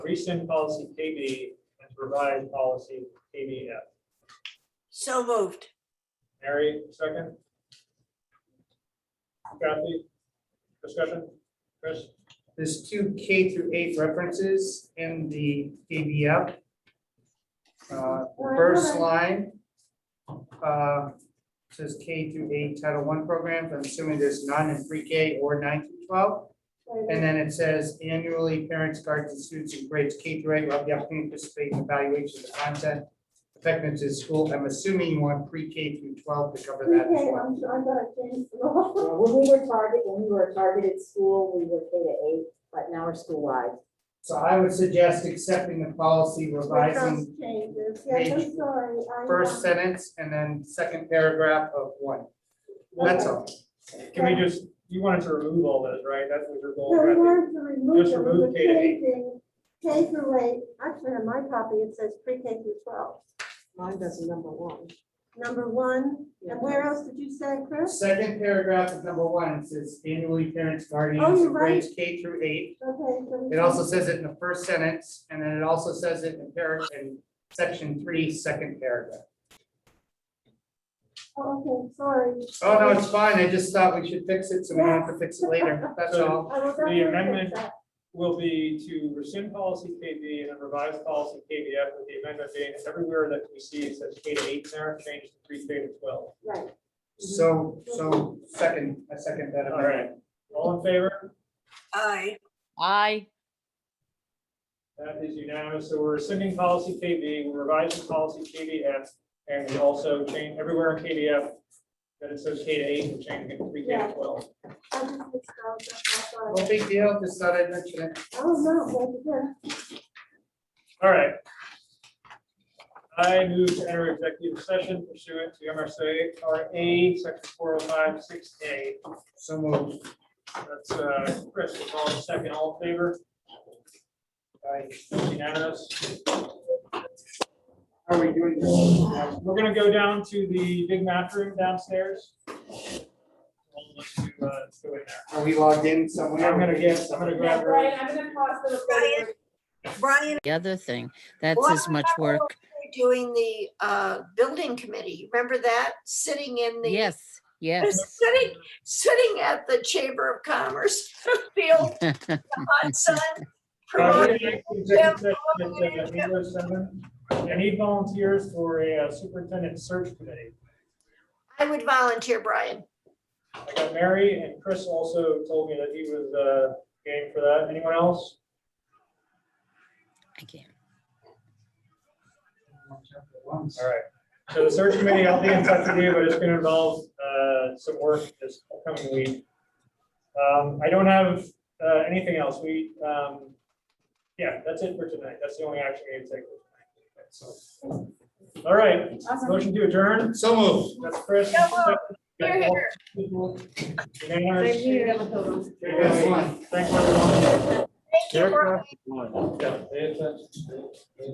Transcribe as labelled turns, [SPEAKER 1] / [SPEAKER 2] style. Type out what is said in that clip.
[SPEAKER 1] rescind policy KB and to revise policy KBF.
[SPEAKER 2] So moved.
[SPEAKER 1] Mary, second? Kathy? Discussion? Chris?
[SPEAKER 3] There's two K through eight references in the ABF. Uh, the First line uh, says K through eight Title I programs. I'm assuming there's none in pre-K or nine through twelve. And then it says annually, parents, guardians, and students in grades K through eight will have the opportunity to participate in evaluation of the content effectiveness of school. I'm assuming you want pre-K through twelve to cover
[SPEAKER 4] Okay,
[SPEAKER 3] that
[SPEAKER 4] um,
[SPEAKER 3] as
[SPEAKER 4] I'm
[SPEAKER 3] well.
[SPEAKER 4] sure I thought I changed the law.
[SPEAKER 5] Yeah, When Uh, we were target, when we were a targeted school, we were K to eight, but now we're school-wide.
[SPEAKER 3] So I would suggest accepting the policy revising
[SPEAKER 4] Those Changes, yes,
[SPEAKER 3] page
[SPEAKER 4] I'm sorry. I, um,
[SPEAKER 3] first sentence and then second paragraph of one. That's all.
[SPEAKER 1] Can we just, you wanted to remove all those, right? That's what your
[SPEAKER 4] The
[SPEAKER 1] goal, right?
[SPEAKER 4] word to remove
[SPEAKER 1] Just
[SPEAKER 4] them,
[SPEAKER 1] remove
[SPEAKER 4] the
[SPEAKER 1] K to eight.
[SPEAKER 4] changing, K through eight, actually on my copy, it says pre-K through twelve.
[SPEAKER 5] Mine does number one.
[SPEAKER 4] Number one,
[SPEAKER 5] Yeah.
[SPEAKER 4] and where else did you say, Chris?
[SPEAKER 3] Second paragraph of number one it says annually parents,
[SPEAKER 4] Oh,
[SPEAKER 3] guardians,
[SPEAKER 4] you're
[SPEAKER 3] of grades K through eight.
[SPEAKER 4] Okay. so we-
[SPEAKER 3] It also says it in the first sentence and then it also says it in paragraph, in section three, second paragraph.
[SPEAKER 4] Oh, Okay, sorry.
[SPEAKER 3] Oh, no, it's fine. I just thought we should fix it so we don't have to fix it later. That's all.
[SPEAKER 4] I
[SPEAKER 1] The
[SPEAKER 4] will definitely fix
[SPEAKER 1] amendment-
[SPEAKER 4] that.
[SPEAKER 1] Will be to rescind policy KB and then revise policy KBF with the amendment being everywhere that we see it says K to eight, there, change to pre K to twelve.
[SPEAKER 4] Right,
[SPEAKER 3] So, so second, a second that.
[SPEAKER 1] All right. All in favor?
[SPEAKER 2] Aye.
[SPEAKER 6] Aye.
[SPEAKER 1] That is unanimous. So we're rescinding policy KB, we're revising policy KBF, and we also change everywhere in KBF that it says K to eight, we're changing it to pre K to
[SPEAKER 4] Yeah.
[SPEAKER 1] twelve.
[SPEAKER 4] I just mixed up, that's all,
[SPEAKER 3] No big deal. Just thought I'd mention it.
[SPEAKER 4] sorry. Oh, no, that's good.
[SPEAKER 1] All right. I move to enter executive session pursuant to MRSA RA, section four oh five, six A.
[SPEAKER 3] So moved.
[SPEAKER 1] That's, uh, Chris, all in second, all in favor,
[SPEAKER 3] Aye.
[SPEAKER 1] unanimous.
[SPEAKER 3] How are we doing? this?
[SPEAKER 1] We're gonna go down to the big math room downstairs. We'll look to, uh, let's go in there.
[SPEAKER 3] Are we logged in somewhere?
[SPEAKER 1] I'm gonna get, I'm gonna grab her.
[SPEAKER 7] I'm gonna pause the
[SPEAKER 2] Brian, Brian,
[SPEAKER 6] The other thing, that's
[SPEAKER 2] What
[SPEAKER 6] as much
[SPEAKER 2] about
[SPEAKER 6] work.
[SPEAKER 2] we're doing the uh, building committee, remember that? Sitting in the.
[SPEAKER 6] Yes, yes.
[SPEAKER 2] Sitting, sitting at the Chamber of Commerce field on Sun.
[SPEAKER 1] Uh, we're
[SPEAKER 2] promoting-
[SPEAKER 1] gonna get to executive session that says I need those seven. I need volunteers for a uh, superintendent search committee.
[SPEAKER 2] I would volunteer, Brian.
[SPEAKER 1] I got Mary and Chris also told me that he was, uh, game for that. Anyone else?
[SPEAKER 6] I can't.
[SPEAKER 1] All right. So the search committee, I'll be in touch with you, but it's gonna involve, uh, some work this upcoming week. Um, I don't have, uh, anything else. We, um, yeah, that's it for tonight. That's the only action we can take. So, All right, motion to adjourn.
[SPEAKER 3] So moved.
[SPEAKER 1] That's Chris.
[SPEAKER 2] Yeah, well, here, here.
[SPEAKER 1] Unanimous.
[SPEAKER 3] Yes, one.
[SPEAKER 1] Thanks, everyone.
[SPEAKER 2] Thank you, Brian.
[SPEAKER 1] Yeah, they-